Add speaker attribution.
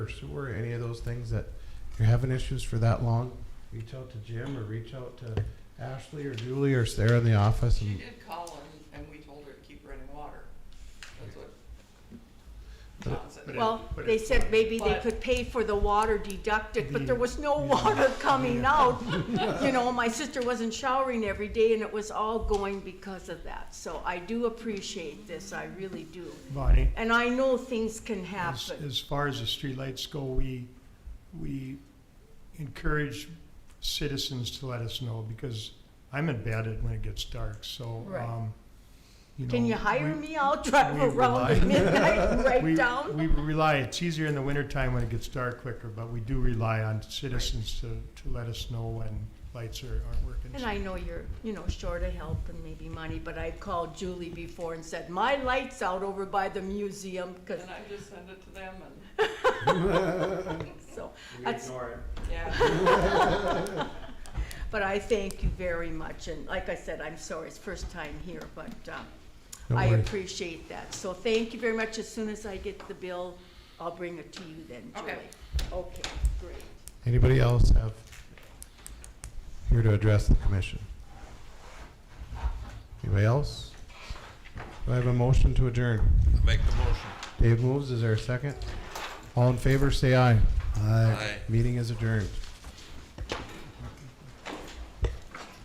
Speaker 1: or sewer, any of those things that you're having issues for that long, reach out to Jim or reach out to Ashley or Julie or Sarah in the office
Speaker 2: She
Speaker 1: and
Speaker 2: did call and, and we told her to keep running water. That's what
Speaker 1: But it-
Speaker 2: John said.
Speaker 3: but it-
Speaker 4: Well,
Speaker 3: but
Speaker 4: they
Speaker 3: it's
Speaker 4: said
Speaker 3: not-
Speaker 4: maybe they
Speaker 2: But-
Speaker 4: could pay for the water deducted, but there was no
Speaker 1: Yeah.
Speaker 4: water coming
Speaker 1: Yeah.
Speaker 4: out. You know, my sister wasn't showering every day and it was all going because of that. So I do appreciate this, I really do.
Speaker 3: Bonnie,
Speaker 4: And I know things can
Speaker 3: as,
Speaker 4: happen.
Speaker 3: as far as the streetlights go, we, we encourage citizens to let us know because I'm in bed at- when it gets dark, so,
Speaker 4: Right.
Speaker 3: um, you know.
Speaker 4: Can you hire
Speaker 3: we-
Speaker 4: me? I'll drive
Speaker 3: we
Speaker 4: around
Speaker 3: rely-
Speaker 4: at midnight,
Speaker 3: we-
Speaker 4: right down.
Speaker 3: We rely, it's easier in the wintertime when it gets dark quicker, but we do rely on citizens to, to let us know when lights are, aren't working.
Speaker 4: And I know you're, you know, short of help and maybe money, but I called Julie before and said, my light's out over by the museum, cause,
Speaker 2: And I just send it to them and,
Speaker 4: so, that's,
Speaker 2: yeah,
Speaker 4: But I thank you very much, and like I said, I'm sorry, it's first time here, but uh,
Speaker 1: No
Speaker 4: I
Speaker 1: worries.
Speaker 4: appreciate that. So thank you very much. As soon as I get the bill, I'll bring it to you then, Julie.
Speaker 2: Okay.
Speaker 4: Okay, great.
Speaker 1: Anybody else have here to address the commission? Anybody else? Do I have a motion to adjourn?
Speaker 5: Make the motion.
Speaker 1: Dave moves, is there a second? All in favor, say aye.
Speaker 5: Aye.
Speaker 1: Meeting is adjourned.